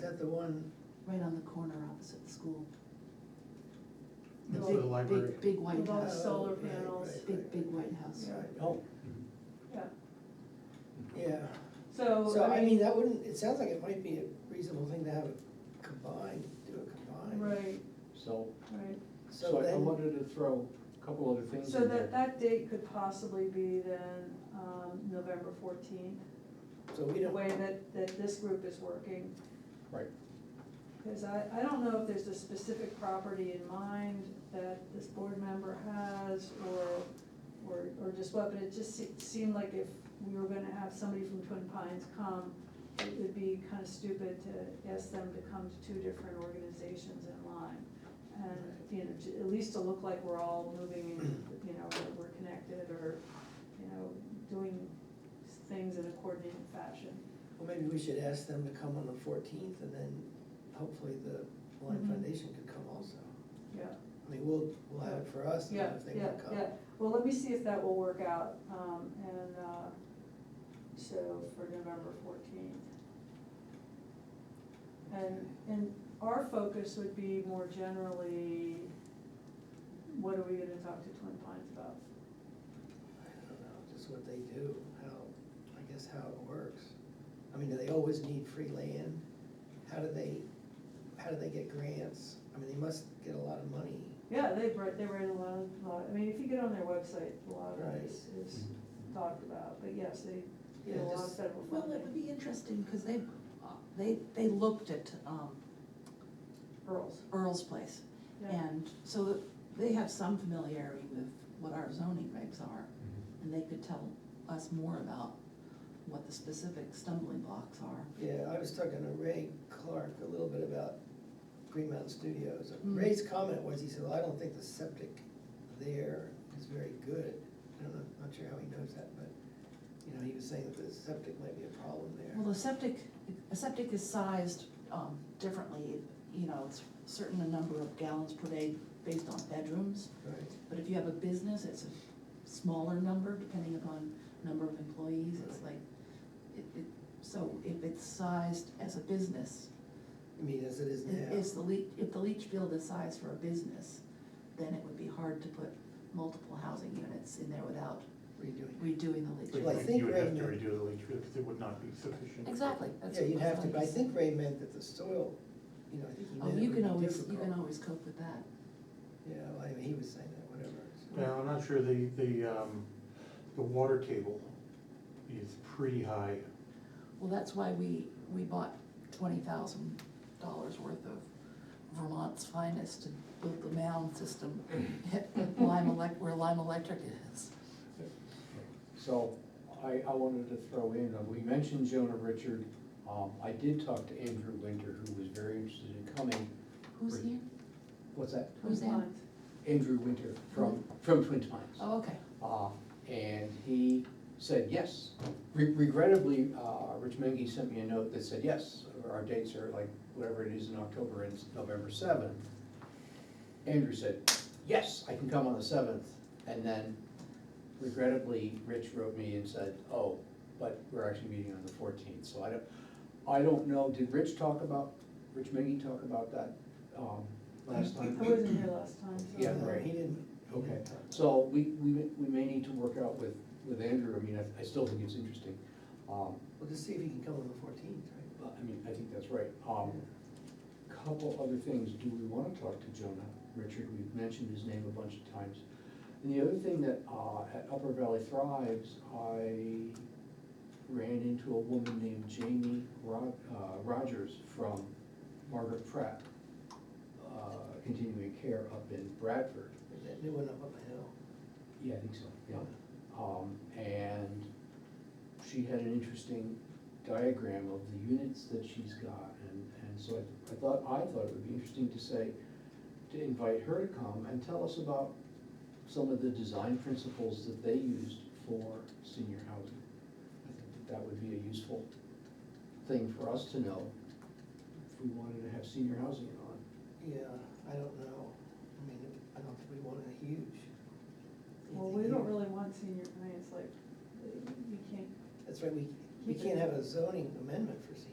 that the one, right on the corner opposite the school. The Next big- to the library. Big, big white With all the house, solar Uh, Right, panels, right. big, big white house. yeah, oh, yeah, yeah. So, so, I mean, that wouldn't, it sounds like it might be a reasonable thing to have it combined, do it combined. right, So, right. so So I I then, wanted to throw a couple other things So in that, there. that date could possibly be then, um, November fourteenth, so we the don't, way that, that this group is working. Right, Because I, I don't know if there's a specific property in mind that this board member has or, or, or just what, but it just se- seemed like if we were gonna have somebody from Twin Pines come, it would be kind of stupid to ask them to come to two different organizations in line. And, you know, to- at least to look like we're all moving, in, you know, that we're connected or, you know, doing things in a coordinated fashion. well, maybe we should ask them to come on the fourteenth and then hopefully the Lime Mhm. Foundation could come also. Yeah. I mean, we'll, we'll have it for us and Yeah, if they yeah, wanna come. yeah. Well, let me see if that will work out, um, and, uh, so for November fourteenth. And, and our focus would be more generally, what are we gonna talk to Twin Pines about? I don't know, just what they do, how, I guess how it works. I mean, do they always need free land? How do they, how do they get grants? I mean, they must get a lot of money. Yeah, they write, they write a lot, of- lot, I mean, if you get on their website, a lot of it is, is talked about, but yes, they get a Yeah, lot of just- federal funding. Well, it would be interesting, because they, uh, they, they looked at um, Earls, Earl's place. yeah, And so that they have some familiarity with what our zoning regs are, and they could tell us more about what the specific stumbling blocks are. Yeah, I was talking to Ray Clark a little bit about Green Mountain Studios. Mm. Ray's comment was, he said, well, I don't think the septic there is very good. I don't know, not sure how he knows that, but, you know, he was saying that the septic might be a problem there. Well, the septic, a septic is sized um, differently, you know, it's certain a number of gallons per day based on bedrooms. Right. But if you have a business, it's a smaller number, depending upon number of employees, it's like, it, it, so if it's sized as a business, I mean, as it is now. if the leach, if the leach field is sized for a business, then it would be hard to put multiple housing units in there without Redoing it. redoing the leach Well, I field. think You would have right to now- redo the leach field because it would not be sufficient. Exactly, that's. Yeah, you'd that's have to, what but I said. think Ray meant that the soil, you know, I think he Oh, meant it you would can be always, you can difficult. always cope with that. Yeah, well, I mean, he was saying that, whatever. so- Now, I'm not sure the, the, um, the water table is pretty high. Well, that's why we, we bought twenty thousand dollars worth of Vermont's finest to build the mound system at Lime Elec, where Lime Electric is. So I, I wanted to throw in, uh, we mentioned Jonah Richard. Um, I did talk to Andrew Winter, who was very interested in coming. Who's here? What's that? Twin Who's that? Pines. Andrew Winter from, from Twin Pines. Oh, okay. Uh, and he said yes. Re- Regrettably, uh, Rich Mengy sent me a note that said, yes, our dates are like, whatever it is in October and it's November seventh. Andrew said, yes, I can come on the seventh, and then regrettably, Rich wrote me and said, oh, but we're actually meeting on the fourteenth, so I don't, I don't know, did Rich talk about, Rich Mengy talk about that, um, last time? I wasn't here last time, so. Yeah, No, right. Uh, He didn't. he Okay, didn't talk. so we, we, may- we may need to work out with, with Andrew, I mean, I, I still think it's interesting. Um, We'll just see if he can come on the fourteenth, right? but, I mean, I think that's right. Um, couple other things, do we wanna talk to Jonah? Richard, we've mentioned his name a bunch of times. And the other thing that, uh, at Upper Valley Thrives, I ran into a woman named Jamie Rod, uh, Rogers from Margaret Pratt, uh, continuing care up in Bradford. That new one up on the hill. Yeah, I think so, yeah. Um, and she had an interesting diagram of the units that she's got, and, and so I, I thought, I thought it would be interesting to say, to invite her to come and tell us about some of the design principles that they used for senior housing. I think that that would be a useful thing for us to know if we wanted to have senior housing on. Yeah, I don't know. I mean, I don't think we want a huge. Well, we don't really want senior, I mean, it's like, you can't, That's right, we, we can't have a zoning amendment for senior